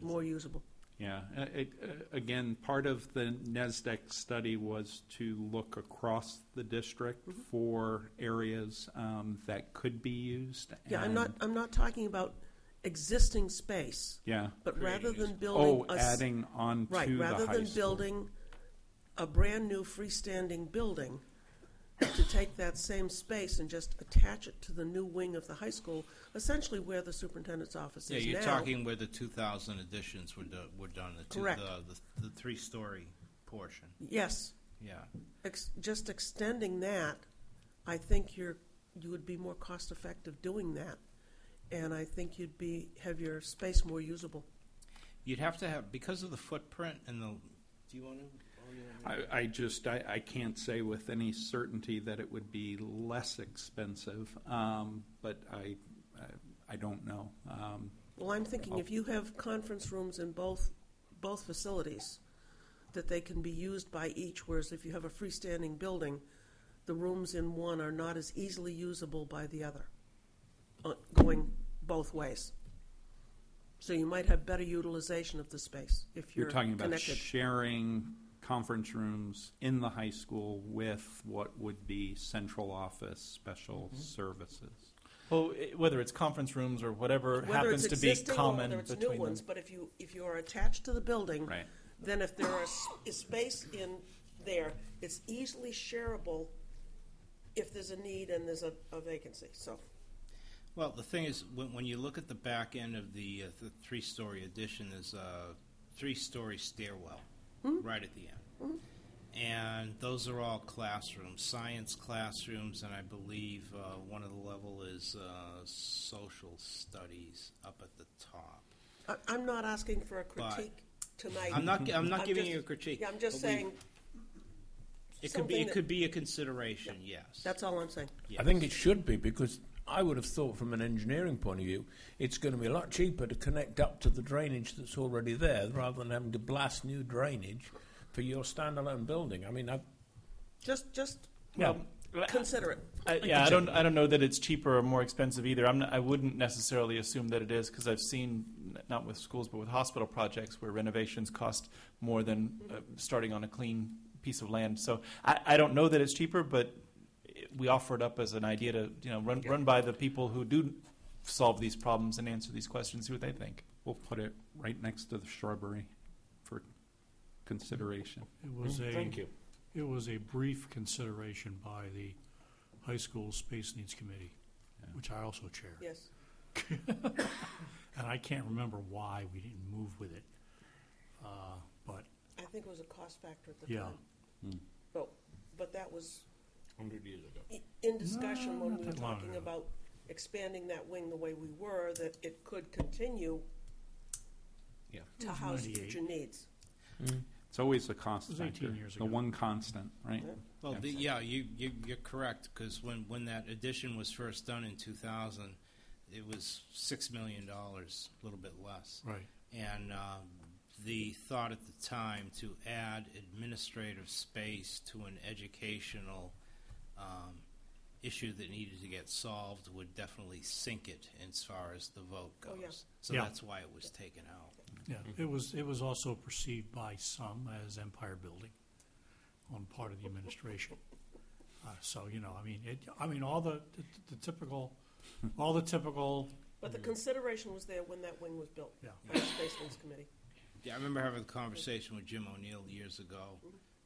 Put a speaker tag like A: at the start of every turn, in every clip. A: more usable.
B: Yeah, uh, it- uh, again, part of the NESDEC study was to look across the district
A: Mm-hmm.
B: for areas um, that could be used.
A: Yeah, I'm
B: and-
A: not, I'm not talking about existing space,
B: Yeah.
A: but rather than building
B: Oh,
A: a. s-
B: adding on to the high
A: Right,
B: school.
A: rather than building a brand-new freestanding building, to take that same space and just attach it to the new wing of the high school, essentially where the superintendent's office
C: Yeah,
A: is now.
C: you're talking where the 2000 additions were, do- were done, the, two,
A: Correct.
C: the, the, the three story portion.
A: Yes,
C: Yeah.
A: ex- just extending that, I think you're, you would be more cost-effective doing that. And I think you'd be, have your space more usable.
C: You'd have to have, because of the footprint and the. Do you want to?
B: I, I just, I, I can't say with any certainty that it would be less expensive, um, but I, I- I don't know. Um,
A: Well, I'm thinking if you have conference rooms in both, both facilities, that they can be used by each, whereas if you have a freestanding building, the rooms in one are not as easily usable by the other, uh, going both ways. So you might have better utilization of the space if
B: You're
A: you're
B: talking
A: connected.
B: about sharing conference rooms in the high school with what would be central office special services.
D: Well, i- whether it's conference rooms or whatever
A: Whether
D: happens
A: it's
D: to be
A: existing or
D: common
A: whether it's new
D: between them.
A: ones, but if you, if you are attached to the building.
B: Right.
A: Then if there are s- is space in there, it's easily shareable if there's a need and there's a, a vacancy, so.
C: Well, the thing is, when, when you look at the back end of the, uh, the three story addition, there's a three story stairwell
A: Hmm?
C: right at the end. And those are all classrooms, science classrooms, and I believe uh, one of the level is uh, social studies up at the top.
A: I, I'm not asking for a critique tonight.
C: I'm not. I'm not
A: I'm
C: giving
A: just-
C: you a critique.
A: Yeah, I'm just
C: but we-
A: saying,
C: It could be.
A: something
C: It
A: that-
C: could be a consideration. Yes.
A: that's all I'm saying.
E: I think it should be because I would have thought, from an engineering point of view, it's going to be a lot cheaper to connect up to the drainage that's already there rather than having to blast new drainage for your standalone building. I mean, I,
A: Just, just
D: Well,
A: consider it.
D: I, yeah, I don't. I don't know that it's cheaper or more expensive either. I'm. Not, I wouldn't necessarily assume that it is because I've seen n- not with schools but with hospital projects where renovations cost more than uh, starting on a clean piece of land. So I, I don't know that it's cheaper, but it- we offer it up as an idea to you know run run by the people who do solve these problems and answer these questions. See what they think.
B: We'll put it right next to the shrubbery for consideration.
F: It was a,
E: you.
F: it was a brief consideration by the High School Space Needs Committee, which I also chair.
A: Yes,
F: And I can't remember why we didn't move with it. Uh, But,
A: I think it was a cost factor at the
F: yeah,
A: time. But, but that was
E: Hundred years ago.
A: i- in discussion when
F: not
A: we were
F: that long
A: talking
F: ago.
A: about expanding that wing the way we were, that it could continue
E: Yeah.
A: to
F: was
A: house
F: 98.
A: future needs.
B: It's always a cost
F: It was
B: factor.
F: 18 years
B: The
F: ago.
B: one constant, right?
C: Well, the, yeah, you, you you're correct because when when that addition was first done in 2000, it was six million dollars, a little bit less.
F: right.
C: And um, the thought at the time to add administrative space to an educational um, issue that needed to get solved would definitely sink it as far as the vote goes.
A: Oh, yeah.
C: So
F: Yeah.
C: that's why it was taken out.
F: Yeah, it was, it was also perceived by some as empire building on part of the administration. Uh, So, you know, I mean, it, I mean, all the, the- the typical, all the typical,
A: But the
C: Mm-hmm.
A: consideration was there when that wing was built
F: yeah.
A: by the Space Needs Committee.
C: Yeah, I remember having a conversation with Jim O'Neill years ago,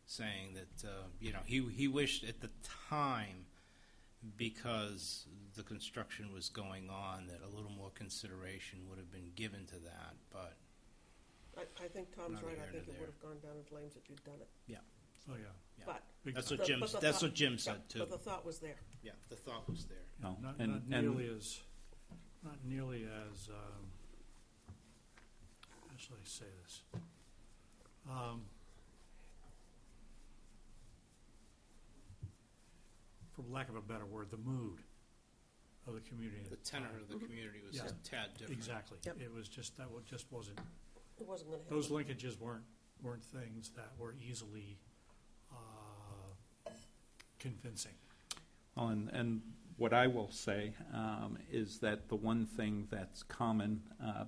C: saying that uh, you know he he wished at the time, because the construction was going on, that a little more consideration would have been given to that. But
A: I, I think Tom's
C: Neither
A: right.
C: here
A: I
C: nor
A: think it
C: there.
A: would have gone down in flames if you'd done it.
C: yeah,
F: Oh, yeah.
C: Yeah.
A: But
F: Big
C: that's
F: time.
C: what
A: The-
C: Jim
A: but the
C: that's
A: thought-
C: what Jim
A: yeah,
C: said too.
A: but the thought was there.
C: Yeah, the thought was there.
B: No.
F: Not,
B: And-
F: not
B: and-
F: nearly as, not nearly as, um, how shall I say this? Um, for lack of a better word, the mood of the community. at
C: The tenor
F: time.
C: of the community was
F: Yeah.
C: a tad different.
F: Exactly.
A: Yep.
F: It was just, that wa- just wasn't,
A: It wasn't going to happen.
F: those linkages weren't, weren't things that were easily, uh, convincing.
B: Well, and, and what I will say um, is that the one thing that's common uh,